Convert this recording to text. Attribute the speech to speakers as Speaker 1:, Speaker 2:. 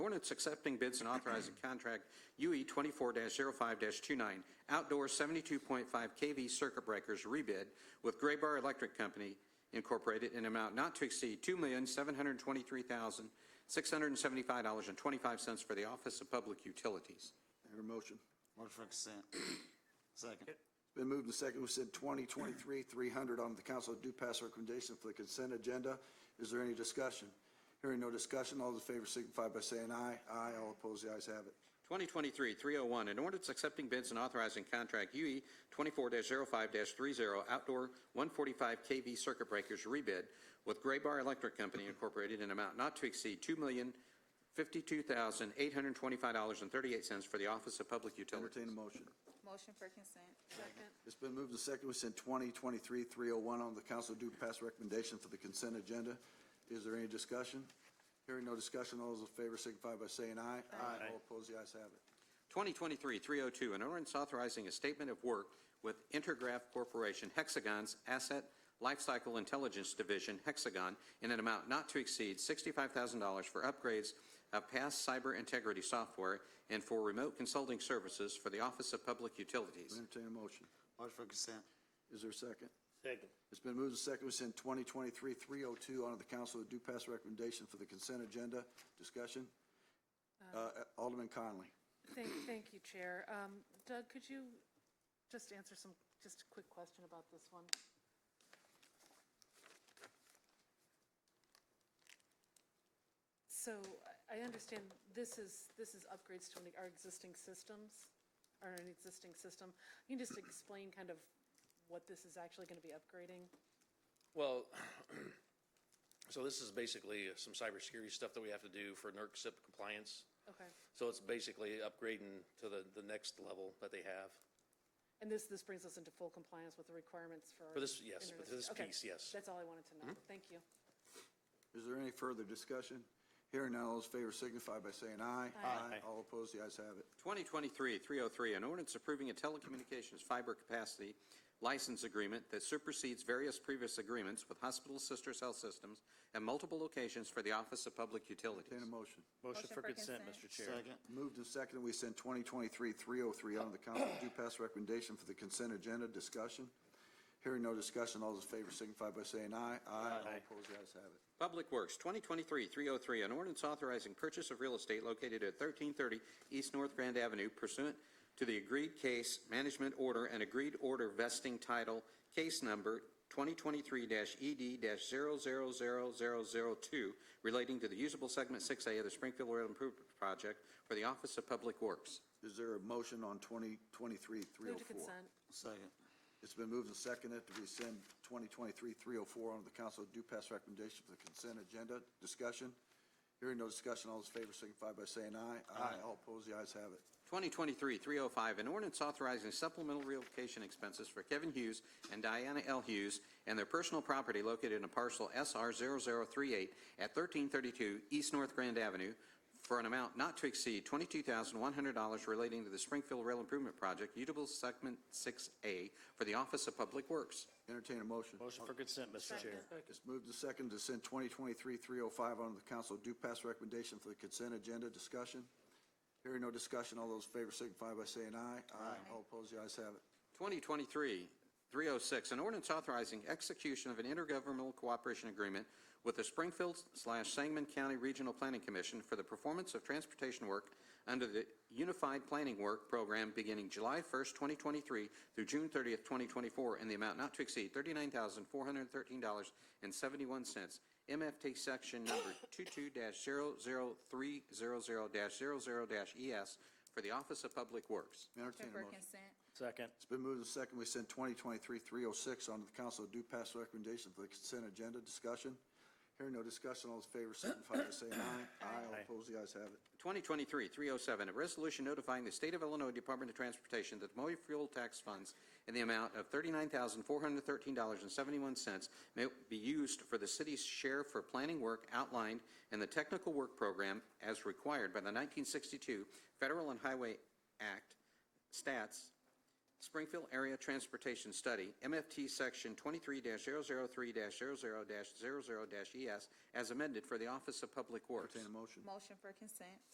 Speaker 1: ordinance accepting bids and authorizing contract E UE 24-05-29 outdoor 72.5 KV circuit breakers rebid with Graybar Electric Company Incorporated in amount not to exceed $2,723,675.25 for the Office of Public Utilities.
Speaker 2: Hear a motion?
Speaker 3: Motion for consent. Second.
Speaker 2: It's been moved and seconded. We said 2023, 300 on the council do pass recommendation for the consent agenda. Is there any discussion? Hearing no discussion, all those in favor signify by saying aye. Aye, all opposed, the ayes have it.
Speaker 1: 2023-301, an ordinance accepting bids and authorizing contract E UE 24-05-30 outdoor 145 KV circuit breakers rebid with Graybar Electric Company Incorporated in amount not to exceed $2,052,825.38 for the Office of Public Utilities.
Speaker 2: Entertain a motion.
Speaker 4: Motion for consent. Second.
Speaker 2: It's been moved and seconded. We said 2023, 301 on the council do pass recommendation for the consent agenda. Is there any discussion? Hearing no discussion, all those in favor signify by saying aye. Aye, all opposed, the ayes have it.
Speaker 1: 2023-302, an ordinance authorizing a statement of work with Intergraph Corporation Hexagon's Asset Lifecycle Intelligence Division, Hexagon, in an amount not to exceed $65,000 for upgrades of past cyber integrity software and for remote consulting services for the Office of Public Utilities.
Speaker 2: Entertain a motion.
Speaker 3: Motion for consent.
Speaker 2: Is there a second?
Speaker 5: Second.
Speaker 2: It's been moved and seconded. We send 2023-302 on to the council to do pass recommendation for the consent agenda. Discussion? Uh, Alderman Conley.
Speaker 6: Thank, thank you, Chair. Um, Doug, could you just answer some, just a quick question about this one? So I I understand this is, this is upgrades to an- our existing systems, or an existing system. Can you just explain kind of what this is actually going to be upgrading?
Speaker 7: Well, so this is basically some cybersecurity stuff that we have to do for NERC SIP compliance.
Speaker 6: Okay.
Speaker 7: So it's basically upgrading to the, the next level that they have.
Speaker 6: And this, this brings us into full compliance with the requirements for.
Speaker 7: For this, yes,
Speaker 6: internet-
Speaker 7: for this
Speaker 6: okay.
Speaker 7: piece, yes. Mm-hmm.
Speaker 6: That's all I wanted to know. Thank you.
Speaker 2: Is there any further discussion? Hearing none, all those in favor signify by saying aye. Aye. All opposed, the ayes have it.
Speaker 1: 2023-303, an ordinance approving a telecommunications fiber capacity license agreement that supersedes various previous agreements with hospital sisters health systems and multiple locations for the Office of Public Utilities.
Speaker 2: Entertain a motion.
Speaker 5: Motion for consent, Mr. Chair.
Speaker 3: Second.
Speaker 2: Moved and seconded. We send 2023-303 on to the council to do pass recommendation for the consent agenda. Discussion? Hearing no discussion, all those in favor signify by saying aye. Aye. All opposed, the ayes have it.
Speaker 1: Public Works, 2023-303, an ordinance authorizing purchase of real estate located at 1330 East North Grand Avenue pursuant to the agreed case management order and agreed order vesting title, case number E 2023-ED-00000002, relating to the usable segment 6A of the Springfield Rail Improvement Project for the Office of Public Works.
Speaker 2: Is there a motion on 2023-304?
Speaker 6: Move to consent.
Speaker 3: Second.
Speaker 2: It's been moved and seconded to rescind 2023-304 on oh the council due pass recommendation for the consent agenda. Discussion? Hearing no discussion, all those in favor signify by saying aye. Aye. All opposed, the ayes have it.
Speaker 1: 2023-305, an ordinance authorizing supplemental relocation expenses for Kevin Hughes and Diana L. Hughes and their personal property located in a parcel SR 0038 at 1332 East North Grand Avenue for an amount not to exceed $22,100 relating to the Springfield Rail Improvement Project, Utable Segment 6A, for the Office of Public Works.
Speaker 2: Entertain a motion.
Speaker 5: Motion for consent, Mr. Chair.
Speaker 2: It's moved and seconded to send 2023-305 on oh the council due pass recommendation for the consent agenda. Discussion? Hearing no discussion, all those in favor signify by saying aye. Aye. All opposed, the ayes have it.
Speaker 1: 2023-306, an ordinance authorizing execution of an intergovernmental cooperation agreement with the Springfield slash Sangamon County Regional Planning Commission for the performance of transportation work under the Unified Planning Work Program beginning July 1st, 2023 through June 30th, 2024, in the amount not to exceed $39,413.71, MFT Section Number 22-00300-00-ES E for the Office of Public Works.
Speaker 2: Entertain a
Speaker 4: For
Speaker 2: motion.
Speaker 4: consent.
Speaker 5: Second.
Speaker 2: It's been moved and seconded. We send 2023-306 on to the council due pass recommendation for the consent agenda. Discussion? Hearing no discussion, all those in favor signify by saying aye. Aye. All opposed, the ayes have it.
Speaker 1: 2023-307, a resolution notifying the State of Illinois Department of Transportation that the motor fuel tax funds in the amount of $39,413.71 may be used for the city's share for planning work outlined in the Technical Work Program as required by the 1962 Federal and Highway Act, Stats, Springfield Area Transportation Study, MFT Section 23-003-00-00-ES, E as amended for the Office of Public Works.
Speaker 2: Entertain a motion.
Speaker 4: Motion for consent.